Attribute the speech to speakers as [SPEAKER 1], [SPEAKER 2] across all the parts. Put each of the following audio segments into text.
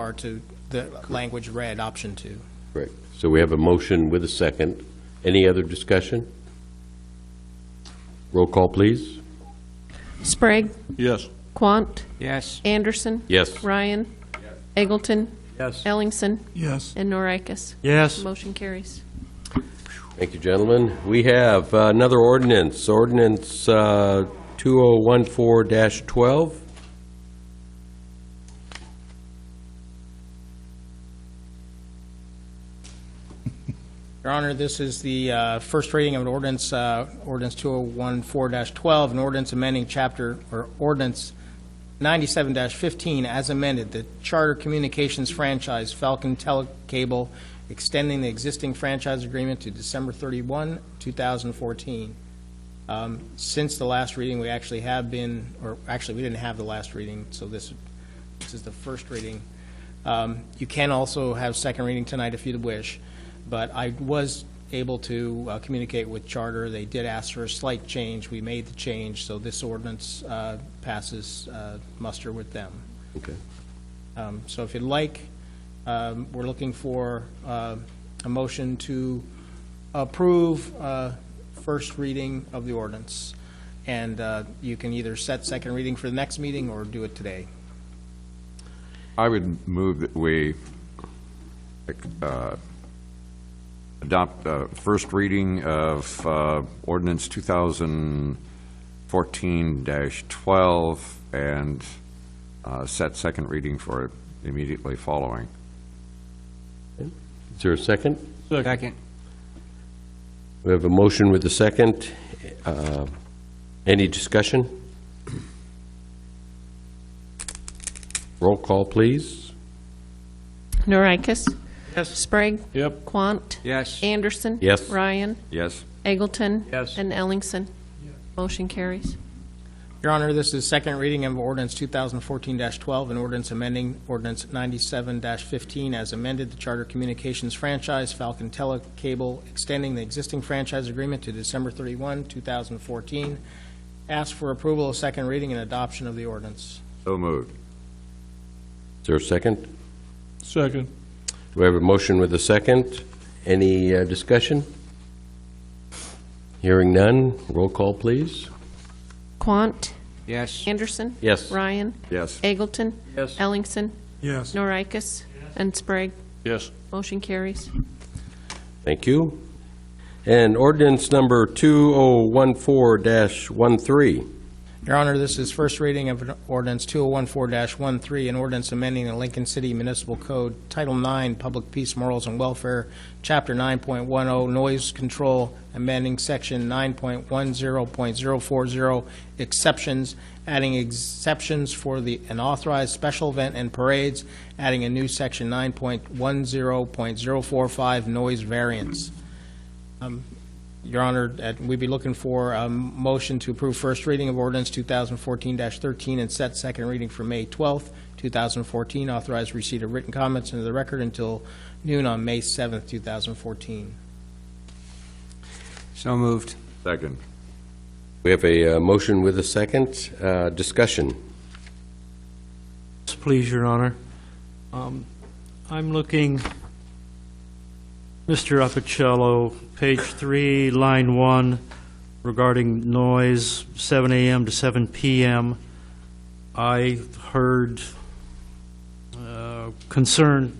[SPEAKER 1] are to the language read, option two.
[SPEAKER 2] Correct. So we have a motion with a second. Any other discussion? Roll call, please.
[SPEAKER 3] Sprague,
[SPEAKER 4] Yes.
[SPEAKER 3] Quant,
[SPEAKER 5] Yes.
[SPEAKER 3] Anderson.
[SPEAKER 2] Yes.
[SPEAKER 3] Ryan. Eggleton.
[SPEAKER 5] Yes.
[SPEAKER 3] Ellingson.
[SPEAKER 4] Yes.
[SPEAKER 3] And Norikis.
[SPEAKER 5] Yes.
[SPEAKER 3] Motion carries.
[SPEAKER 2] Thank you, gentlemen. We have uh, another ordinance, ordinance uh, 2014-12.
[SPEAKER 1] Your Honor, this is the uh, first reading of an ordinance, uh, ordinance 2014-12, an ordinance amending chapter, or ordinance 97-15 as amended, the Charter Communications franchise Falcon Telecable, extending the existing franchise agreement to December 31, 2014. Um, Since the last reading, we actually have been, or actually, we didn't have the last reading, so this, this is the first reading. Um, You can also have second reading tonight if you'd wish but I was able to uh, communicate with Charter. They did ask for a slight change. We made the change, so this ordinance uh, passes uh, muster with them.
[SPEAKER 2] Okay.
[SPEAKER 1] Um, So if you'd like, um, we're looking for uh, a motion to approve uh, first reading of the ordinance. And uh, you can either set second reading for the next meeting or do it today.
[SPEAKER 6] I would move that we uh, adopt uh, first reading of uh, ordinance 2014-12 and uh, set second reading for immediately following.
[SPEAKER 2] Is there a second?
[SPEAKER 5] Second.
[SPEAKER 2] We have a motion with a second. Uh, Any discussion? Roll call, please.
[SPEAKER 3] Norikis.
[SPEAKER 5] Yes.
[SPEAKER 3] Sprague.
[SPEAKER 4] Yep.
[SPEAKER 3] Quant.
[SPEAKER 5] Yes.
[SPEAKER 3] Anderson.
[SPEAKER 2] Yes.
[SPEAKER 3] Ryan.
[SPEAKER 6] Yes?
[SPEAKER 3] Eggleton.
[SPEAKER 5] Yes.
[SPEAKER 3] And Ellingson. Motion carries.
[SPEAKER 1] Your Honor, this is second reading of ordinance 2014-12, an ordinance amending ordinance 97-15 as amended the Charter Communications franchise, Falcon Telecable, extending the existing franchise agreement to December 31, 2014. Ask for approval of second reading and adoption of the ordinance.
[SPEAKER 6] So moved.
[SPEAKER 2] Is there a second?
[SPEAKER 4] Second.
[SPEAKER 2] We have a motion with a second. Any uh, discussion? Hearing none. Roll call, please.
[SPEAKER 3] Quant.
[SPEAKER 5] Yes.
[SPEAKER 3] Anderson.
[SPEAKER 2] Yes.
[SPEAKER 3] Ryan.
[SPEAKER 6] Yes?
[SPEAKER 3] Eggleton.
[SPEAKER 5] Yes.
[SPEAKER 3] Ellingson.
[SPEAKER 4] Yes.
[SPEAKER 3] Norikis. And Sprague.
[SPEAKER 4] Yes.
[SPEAKER 3] Motion carries.
[SPEAKER 2] Thank you. And ordinance number 2014-13.
[SPEAKER 1] Your Honor, this is first reading of an ordinance 2014-13, an ordinance amending the Lincoln City Municipal Code, Title 9, Public Peace, Morals, and Welfare, Chapter 9.10, oh, Noise Control, amending Section 9.10.040, Exceptions, adding exceptions for the unauthorized special event and parades, adding a new Section 9.10.045, Noise Variance. Um, your Honor, uh, we'd be looking for a motion to approve first reading of ordinance 2014-13 and set second reading for May 12th, 2014. Authorize receipt of written comments into the record until noon on May 7th, 2014.
[SPEAKER 5] So moved.
[SPEAKER 6] Second?
[SPEAKER 2] We have a uh, motion with a second. Uh, Discussion.
[SPEAKER 7] Yes, Please, Your Honor. Um, I'm looking, Mr. Apicello, page three, line one, regarding noise, 7 AM to 7 PM. I heard uh, concern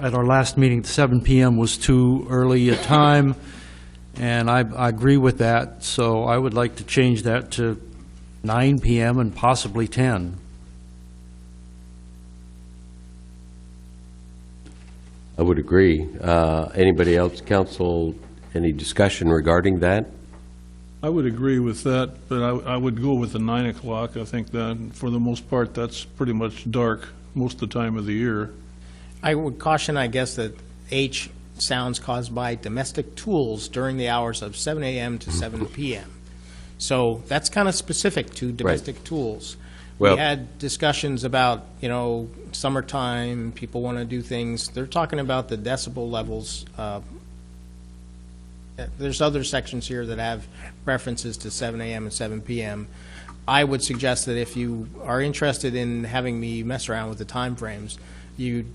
[SPEAKER 7] at our last meeting, 7 PM was too early a time, and I I agree with that, so I would like to change that to 9 PM and possibly 10.
[SPEAKER 2] I would agree. Uh, Anybody else, council, any discussion regarding that?
[SPEAKER 4] I would agree with that, but I, I would go with the nine o'clock. I think that, for the most part, that's pretty much dark most of the time of the year.
[SPEAKER 1] I would caution, I guess, that H sounds caused by domestic tools during the hours of 7 AM to 7 PM. So that's kind of specific to domestic tools. We
[SPEAKER 2] Well-
[SPEAKER 1] had discussions about, you know, summertime, people want to do things. They're talking about the decibel levels. uh, There's other sections here that have references to 7 AM and 7 PM. I would suggest that if you are interested in having me mess around with the timeframes, you